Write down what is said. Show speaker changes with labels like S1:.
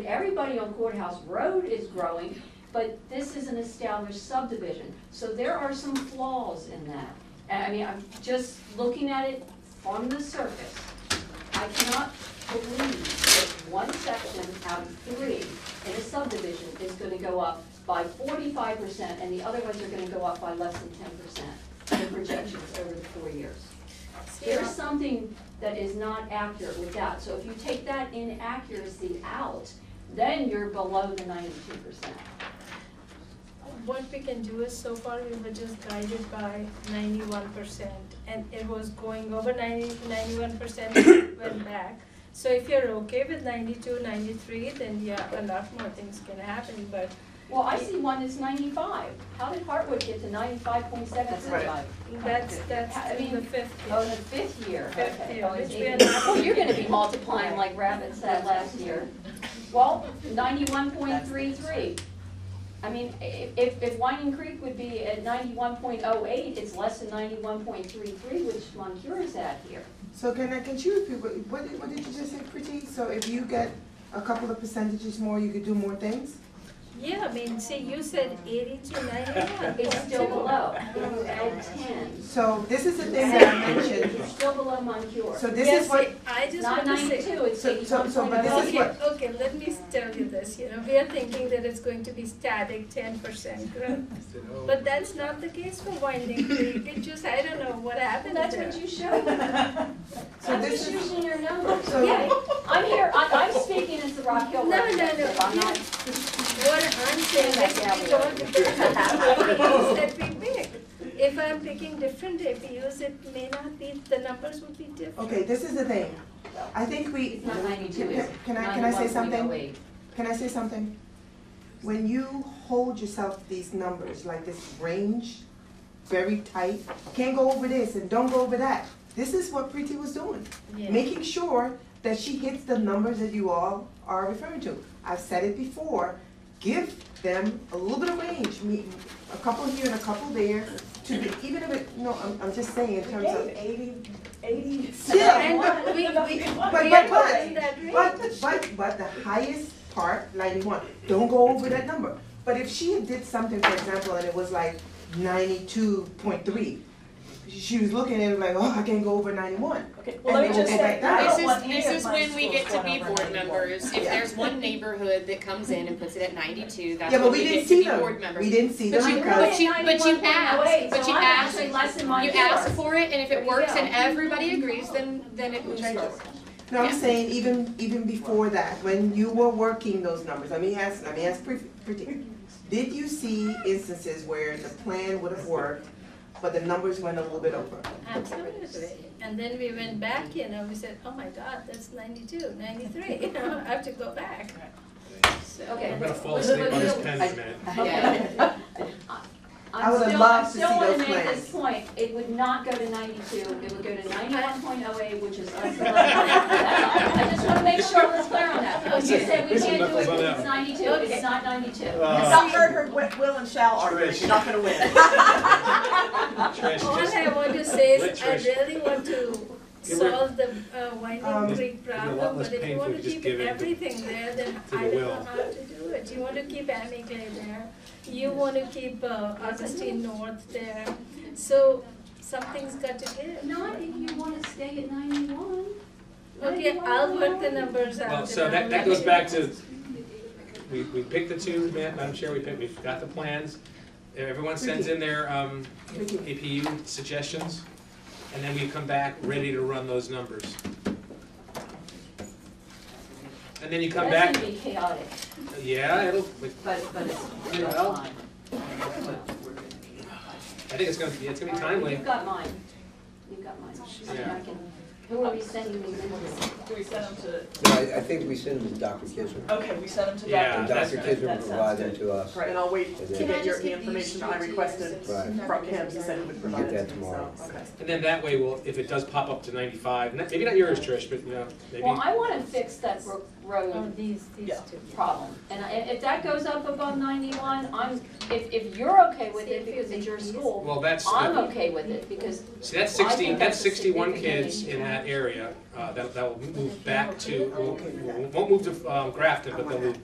S1: Everybody on Courthouse Road is growing, but this is an established subdivision, so there are some flaws in that. And I mean, I'm just looking at it on the surface. I cannot believe that one section out of three in a subdivision is gonna go up by forty-five percent, and the other ones are gonna go up by less than ten percent in projections over the four years. There's something that is not accurate with that, so if you take that inaccuracy out, then you're below the ninety-two percent.
S2: What we can do is, so far, we were just guided by ninety-one percent, and it was going over 90 91 percent, went back. So if you're okay with 92, 93, then yeah, a lot more things can happen, but
S1: Well, I see one that's ninety-five, how did Hartwood get to ninety-five point seven five?
S2: that's, that's
S1: I
S2: in the
S1: mean,
S2: fifth
S1: Oh,
S2: year.
S1: the fifth year,
S2: Fifth
S1: okay.
S2: year,
S1: Oh, it's
S2: which we are
S1: eight.
S2: not-
S1: Well, you're gonna be multiplying like rabbits said last year. Well, ninety-one point three three. I mean, i- if, if Whining Creek would be at ninety-one point oh eight, it's less than ninety-one point three three, which Moncur is at here.
S3: So can I, can you repeat, what, what did, what did you just say, Pretty? So if you get a couple of percentages more, you could do more things?
S2: Yeah, I mean, see, you said eighty to ninety-one.
S1: It's still below, it's at ten.
S3: So this is the thing that I mentioned,
S1: You're still below Moncur.
S3: so this is what,
S2: I just
S1: Not
S2: want to say.
S1: ninety-two, it's
S3: So- so-
S1: eighty-one
S3: so,
S1: point
S3: but
S1: oh
S3: this
S1: eight.
S3: is
S2: Okay,
S3: what-
S2: okay, let me tell you this, you know, we are thinking that it's going to be static ten percent growth. But that's not the case for Winding Creek, it just, I don't know what happened
S1: That's
S2: there.
S1: what you showed.
S3: so
S1: I'm
S3: this
S1: just
S3: is,
S1: using your numbers.
S3: So-
S1: Yeah, I'm here, I, I'm speaking as the Rock Hill
S2: No, no, no,
S1: representative, I'm not
S2: What I'm saying is we don't APUs that we pick. If I'm picking different APUs, it may not be, the numbers would be different.
S3: okay, this is the thing. I think we,
S1: It's not ninety-two, it's
S3: Can I- can I say something?
S1: 91.08.
S3: can I say something? When you hold yourself these numbers, like this range, very tight, can't go over this and don't go over that. This is what Pretty was doing. making sure that she hits the numbers that you all are referring to. I've said it before, give them a little bit of range, me, a couple here and a couple there, to be, even if it, no, I'm, I'm just saying in terms of.
S4: Eighty, eighty.
S3: Yeah,
S2: And we, we, we
S3: but,
S2: are not
S3: but,
S2: in
S3: but,
S2: that range.
S3: but, but, but the highest part, ninety-one, don't go over that number. But if she did something, for example, and it was like ninety-two point three, she was looking at it like, oh, I can't go over ninety-one.
S4: Okay,
S3: well, let me just say- I
S5: This is, this is when we get to be board members, if
S3: Yeah.
S5: there's one neighborhood that comes in and puts it at ninety-two, that's
S3: Yeah, but
S5: when
S3: we
S5: we
S3: didn't
S5: get
S3: see
S5: to be
S3: them,
S5: board members.
S3: we didn't see
S1: oh
S3: them
S5: But you-
S3: because,
S5: but you- but you asked- but
S1: So
S5: you asked-
S1: I'm actually less than
S5: You
S1: Moncur.
S5: ask for it, and if it works and
S1: Yeah.
S5: everybody agrees, then, then it moves
S3: Changes.
S5: forward.
S3: no, I'm
S5: yeah.
S3: saying even, even before that, when you were working those numbers, let me ask, let me ask Pretty, Pretty, did you see instances where the plan would have worked, but the numbers went a little bit over?
S2: Absolutely. And then we went back, you know, we said, oh my God, that's 92, 93, you know, I have to go back. So-
S1: Okay.
S6: I'm gonna fall asleep on this pen in a minute.
S1: Okay.
S3: I would have
S1: I'm still-
S3: loved to see
S1: I'm still
S3: those
S1: wanna make
S3: plans.
S1: this point, it would not go to ninety-two, it would go to ninety-one point oh eight, which is us. That's all. I just wanna make sure we're clear on that, you said we
S6: There's some
S1: can't do it
S6: knuckles on
S1: because
S6: that
S1: it's
S6: one.
S1: ninety-two, it's not ninety-two.
S6: Uh,
S4: heard her wi- will and shall argument,
S6: Trish.
S4: she's not gonna win.
S6: Trish,
S2: All
S6: just-
S2: I want to say is, I
S6: Let's try-
S2: really want to
S6: Give her-
S2: solve the uh, Winding
S3: Um,
S2: Creek
S6: a lot
S2: problem, but
S6: less
S2: if you
S6: painful
S2: want
S6: to
S2: to
S6: just
S2: keep
S6: give it to-
S2: everything there, then
S6: to
S2: I
S6: the
S2: don't know
S6: will.
S2: how to do it. You want to keep Amy Gray there, you want to keep uh, Augustine North there, so something's got to give.
S1: Not if you wanna stay at ninety-one.
S2: Okay, I'll work the numbers out.
S6: Well,
S2: and
S6: so
S2: I'll
S6: that,
S2: let
S6: that goes
S2: you
S6: back
S2: know.
S6: to, we, we picked the two, Ma- Madam Chair, we picked, we've got the plans. Everyone sends in their, um, APU suggestions, and then we come back ready to run those numbers. And then you come
S1: That's
S6: back,
S1: gonna be chaotic,
S6: yeah, it'll,
S1: but, but it's,
S6: Yeah,
S1: it's
S6: well,
S1: fine.
S6: I think it's gonna, be it's gonna be
S1: All right,
S6: timely.
S1: You've got mine, you've got mine, I mean, I can- who are we sending these in to?
S4: Do we send them
S7: No, I, I think we send them to Dr. Kisser.
S4: to, okay, we send them to Dr.
S6: Yeah,
S7: And
S6: that's
S7: Dr. Kisser will
S4: Uh, That sounds
S7: provide them
S4: good.
S7: to us.
S4: Right, and I'll wait
S7: And
S4: to
S7: then-
S4: get your, the information I requested
S7: Right.
S4: from him, he said he would provide
S7: that
S4: it to me, so,
S7: tomorrow.
S4: okay.
S6: And then that way, we'll, if it does pop up to ninety-five, not- maybe not yours, Trish, but, you know, maybe.
S1: Well, I wanna fix that ro-
S2: or
S1: road
S2: Oh, these, these
S4: Yeah.
S2: two.
S1: problem. And I- if that goes up above ninety-one, I'm, if, if you're okay with it
S2: See, if
S1: because it's your
S2: it's-
S1: school,
S6: Well, that's,
S1: I'm
S6: the-
S1: okay with it because
S6: see, that's
S1: Well, I think
S6: sixty,
S1: that's
S6: that's
S1: a
S6: sixty-one
S1: significant
S6: kids in
S1: issue.
S6: that area, uh, that, that will move back to, won't- won't move to, um, Grafton, but they'll move